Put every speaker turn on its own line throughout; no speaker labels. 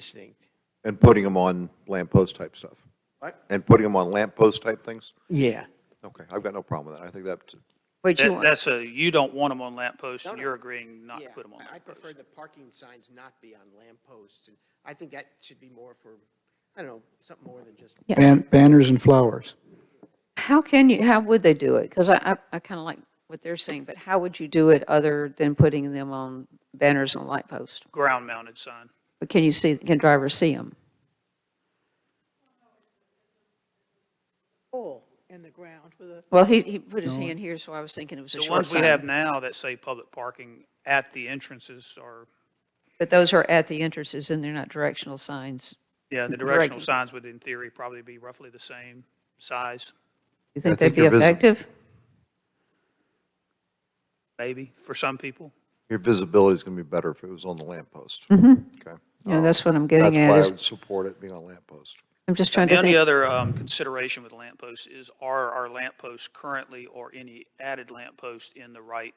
instinct.
And putting them on lamppost type stuff?
What?
And putting them on lamppost type things?
Yeah.
Okay, I've got no problem with that. I think that,
Would you
That,
want,
that's a, you don't want them on lamp posts,
No,
and
no.
you're agreeing not to
Yeah,
put them on
I- I
lamp
prefer
posts.
the parking signs not be on lamp posts, and I think that should be more for, I don't know, something more than just,
Yeah.
Ban- Banners and flowers.
how can you, how would they do it? Because I, I, I kind of like what they're saying, but how would you do it other than putting them on banners and light posts?
Ground mounted sign.
But can you see, can drivers see them?
hole in the ground with a,
Well, he, he put his hand here, so I was thinking it was a
The
short
ones we have
sign.
now that say public parking at the entrances are,
But those are at the entrances and they're not directional signs.
yeah, the
Directional.
directional signs would in theory probably be roughly the same size,
You think
think
they'd be
they're visi-
effective?
maybe, for some people.
your visibility is going to be better if it was on the lamppost. Okay.
You know, that's what I'm
Oh, That's
getting
why
at
I
is,
would support it being on lamppost.
I'm just trying
The
to
only
think.
other um, consideration with lamp posts is are our lamp posts currently or any added lamp posts in the right,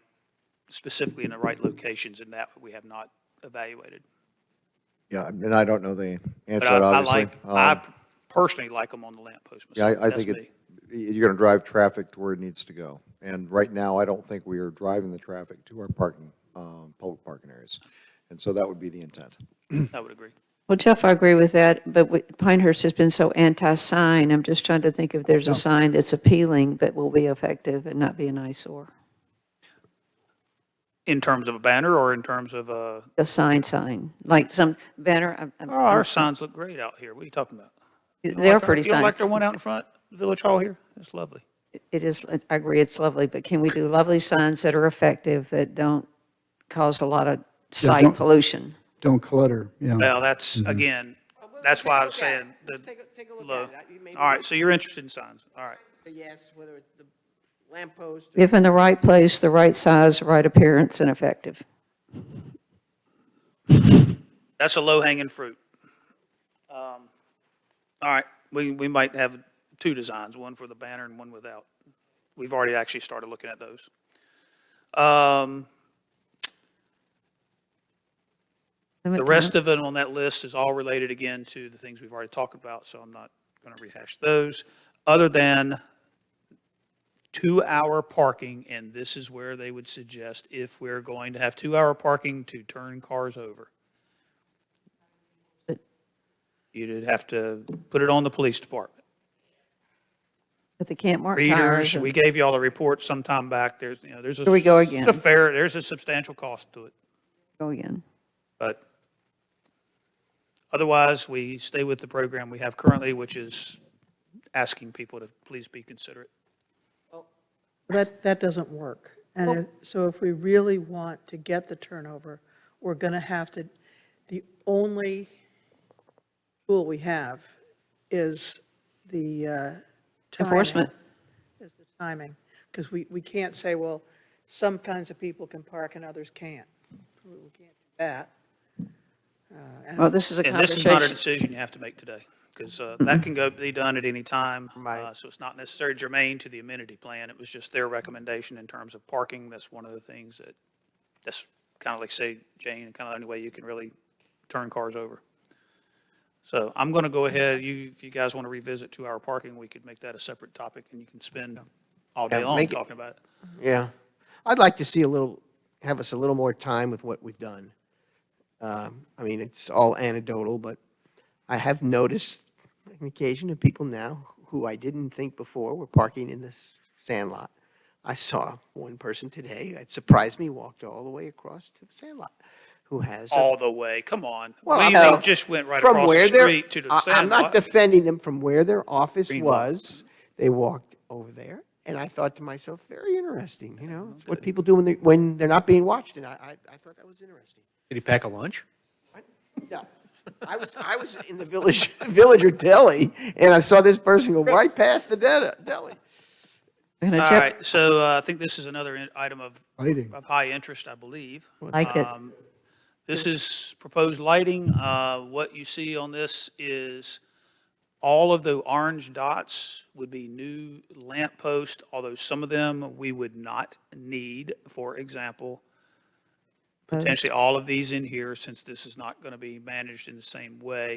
specifically in the right locations, and that we have not evaluated.
Yeah, and I don't know the answer,
But
to
I
that,
I
obviously.
like, I
Um,
personally like them on the lamp post
Yeah,
myself.
I, I
That's
think
me.
it, you're going to drive traffic to where it needs to go. And right now, I don't think we are driving the traffic to our parking, um, public parking areas. And so that would be the intent.
I would agree.
Well, Jeff, I agree with that, but we- Pinehurst has been so anti-sign. I'm just trying to think if there's a sign that's appealing but will be effective and not be an eyesore.
In terms of a banner or in terms of uh, a,
a sign sign, like some banner, I'm- I'm-
oh, our signs look great out here. What are you talking about? You don't
they are
like our-
pretty
You don't
signs.
like the one out in front, Village Hall here? It's lovely.
It is, I agree, it's lovely, but can we do lovely signs that are effective, that don't cause a lot of sight
don't-
pollution?
Don't clutter, yeah.
Well, that's, again,
we'll
that's
take
why
a
I was
look at it.
saying. the
Let's take a- take a look
low.
at it. I- you maybe
All
we-
right, so you're interested in signs. All right.
a yes, whether it's the lamp post. or-
If in the right place, the right size, right appearance, and effective.
That's a low hanging fruit. Um, All right, we, we might have two designs, one for the banner and one without. We've already actually started looking at those. Um, The rest of it on that list is all related again to the things we've already talked about, so I'm not going to rehash those, other than two-hour parking, and this is where they would suggest if we're going to have two-hour parking to turn cars over.
But-
You'd have to put it on the police department.
But they can't mark tires.
Readers,
and-
we gave you all the report sometime back, there's, you know, there's a.
Here we go
it's
again.
a fair, there's a substantial cost to it.
Go again.
But otherwise, we stay with the program we have currently, which is asking people to please be considerate.
that, that doesn't work. And if- so if we really want to get the turnover, we're going to have to, the only tool we have is the uh, timing.
Enforcement.
Is the timing. Because we, we can't say, well, some kinds of people can park and others can't. We we can't do that.
Well, this is a
And this is not a
conversation.
decision you have to make today, because that can go, be done at any time.
Right.
Uh, So it's not necessarily germane to the amenity plan. It was just their recommendation in terms of parking. That's one of the things that, that's kind of like say, Jane, kind of the only way you can really turn cars over. So I'm going to go ahead, you, if you guys want to revisit two-hour parking, we could make that a separate topic, and you can spend all day
Yeah,
long
make it-
talking about it.
Yeah. I'd like to see a little, have us a little more time with what we've done. Um, I mean, it's all anecdotal, but I have noticed an occasion of people now who I didn't think before were parking in this sandlot. I saw one person today, it surprised me, walked all the way across to the sandlot, who has a
all the way. Come on.
Well,
we,
I'm
they
not-
just went right
from
across
where
the
their-
street to the
I-
sandlot.
I'm not defending them from where their office
Greenwalk.
was. They walked over there, and I thought to myself, very interesting, you know? It's what people do when they, when they're not being watched, and I, I, I thought that was interesting.
Did he pack a lunch?
What? No, I was, I was in the village, villager deli, and I saw this person go right past the de- deli.
And a
all
jet-
right. So uh, I think this is another in- item of,
Lighting.
of high interest, I believe.
Like it.
Um, This is proposed lighting. Uh, What you see on this is all of the orange dots would be new lamp posts, although some of them we would not need. For example,
Those-
potentially all of these in here, since this is not going to be managed in the same way,